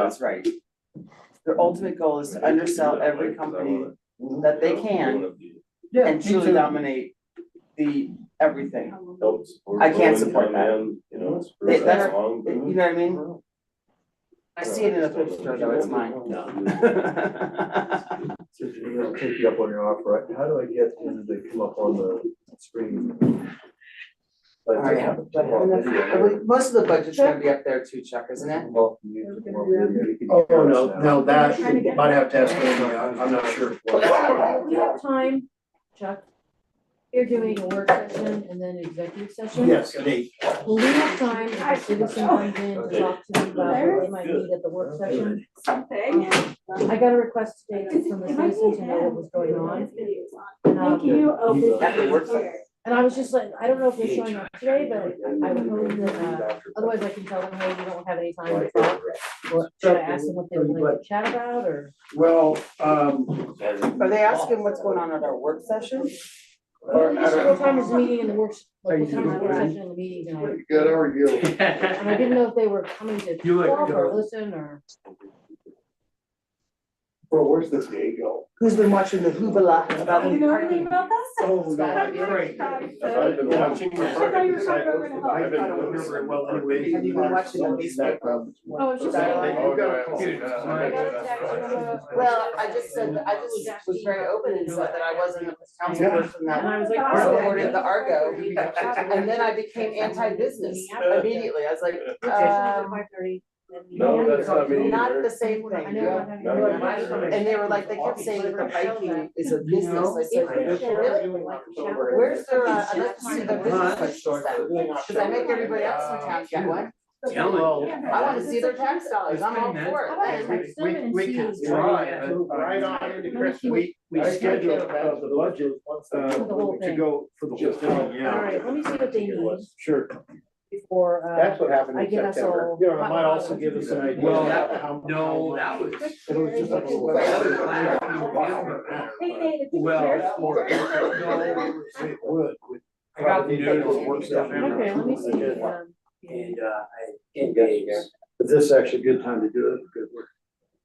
sounds right. Their ultimate goal is to undersell every company that they can and truly dominate the everything. I can't support that. You know, it's. They- for that's- that long, but- You know what I mean? I see it in a picture though, it's mine. So Janine, I'll take you up on your offer. How do I get them to come up on the screen? Like, All right, have a but- small video. Most of the budget's gonna be up there too, Chuck, isn't it? Well, you can- you can- Oh, no, no, that, you might have to ask Amy, I'm, I'm not sure. We have time, Chuck. You're doing a work session and then executive session. Yes, at eight. Will we have time if a citizen comes in to talk to me about what they might need at the work session? Um, something. I got a request today from the citizen to know what was going on. Thank you. Oh, He's, uh, this At the work is site. here. And I was just like, I don't know if they're showing up today, but I would hope that, uh, otherwise I can tell them, hey, you don't have any time to talk. Or should I ask them what they would like to chat about or? Well, um, Are they asking what's going on at our work session? Uh, Well, just What time is the meeting and the work, like what time is the work session and the meeting tonight? good, how are you? And I didn't know if they were coming to You look talk or good. listen or. Well, where's this day go? Who's been watching the hoobla about You know anything about this? Oh, no. Scott, you're- I've been watching. I thought you were talking about when I I- I don't remember it well anyway. Have you been watching the baseball? Oh, it's just. Dialogue. I You've got a computer. got a text from a- Well, I just said, that- I just was very open and said that I wasn't a council person And that, I was like. I supported the Argo. and then I became anti-business No, immediately, I was like, um, that's not me not either. the same I thing, know, I'm having. No, a- no, no. And they were like, they kept saying that the Viking is a business, I said, really? Where's their, uh, I'd like to see their business license then, cause I make everybody else in town get one, I wanna see their tax dollars, I'm all for How about it. I text them and see? Right on into Christmas. um, We, we I can't scheduled get uh, about the budget, uh, For the whole to thing. go for the whole Just thing, All yeah. right, let me see what they need Sure, before, uh, That's what happened I in get us September. all. you know, it might also give us an idea. Well, of that- how- No, that was, It was just like. That was last Hey, Nate, if you Well, care. for- no, It would, with. I got the notice. Work stuff in. Okay, let me see, um, and, uh, I engaged. But this is actually a good time to do it, because we're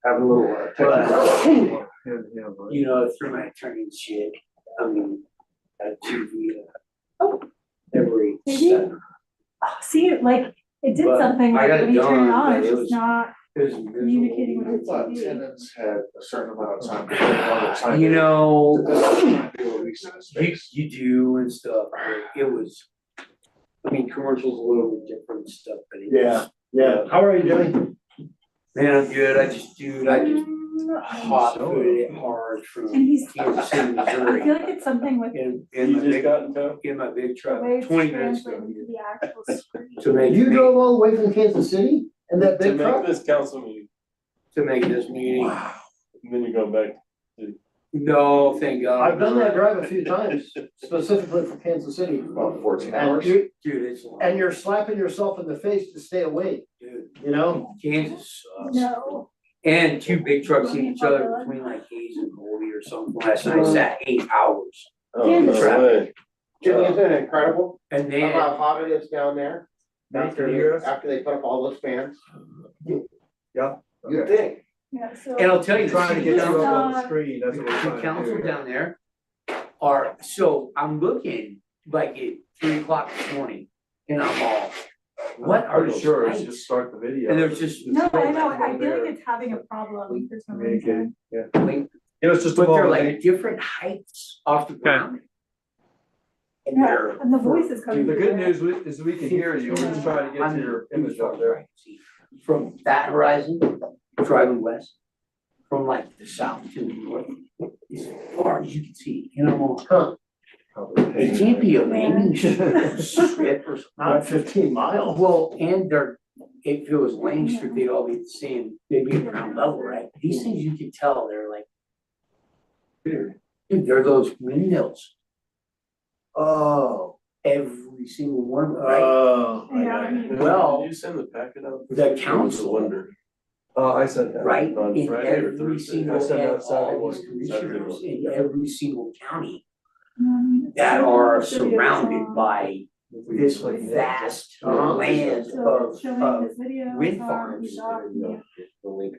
having a little. uh, technical- you know, through my attorney and shit, I mean, uh, to the, uh, every. Maybe. step. Oh, See, it, like, it did But something, I like, got it when you turn done, it on, but it's it just was- not It was visual. communicating with the Thought TV. tenants had a certain amount of time. to clear all the time. You This know, might be a lease in a you, space. you do and stuff, but it was, I mean, commercials a little bit different and stuff, but it was. Yeah, yeah, how are you doing? Man, I'm good, I just, dude, I just hot footed it hard Mm-hmm. And from he's, Kansas City, I feel Missouri. like it's something with In, in You my just big, got in town? in my big the truck, way it's twenty minutes ago. translated to the actual screen. To make, You to drove all the way from Kansas City and that To big make truck? this council meeting, make this meeting, and then you go back. no, thank God. I've done that drive a few times, specifically for Kansas City. About fourteen And hours. you, Dude, it's long. and you're slapping yourself in the face to stay awake, Dude, you know? Kansas sucks. No. And two big trucks in each other between like Hayes and Holy or something, last Uh-huh. night, I sat eight hours. Oh, no Traffic. way. Isn't it incredible And how then, about hot it is down there? After, after they put up all those fans? Yeah. You'd think. Yeah, so. and I'll tell you, the Trying to city get you council, up on the screen, that's the what we're trying city to council do. down there are, so I'm looking like at three o'clock this morning and I'm all, what are Pretty those Sure, lights? it's just start the video. And there's just- No, I know, Over I feel there. like it's having a problem for some Communicate. reason. like, It was just but they're like different heights off the ground. And Yeah, they're. and the voice is The coming. through good there. news we- is we can hear you, we're just trying to get to your image up there. From that horizon, driving west, from like the south to the north, as far as you can see, you know, huh, it can't be a landing strip or Not something. fifteen miles. Well, and they're, if it was Lane Street, they'd all be the same, they'd be around level, right? These things you can tell, they're like. Dude, they're those windmills, Oh, every single one, right? oh. I Yeah, I got it. mean, Well, Did you send the packet out? the I was council- wondering. Oh, I said that. right? on In Friday or every Thursday. single, I said and that Saturday all these morning. Saturday commissioners morning. in every single county um, that so are it's video song. surrounded by this Like, yeah. vast Uh-huh. land So of, it's showing of this video. wind song, farms. he's off, yeah. The link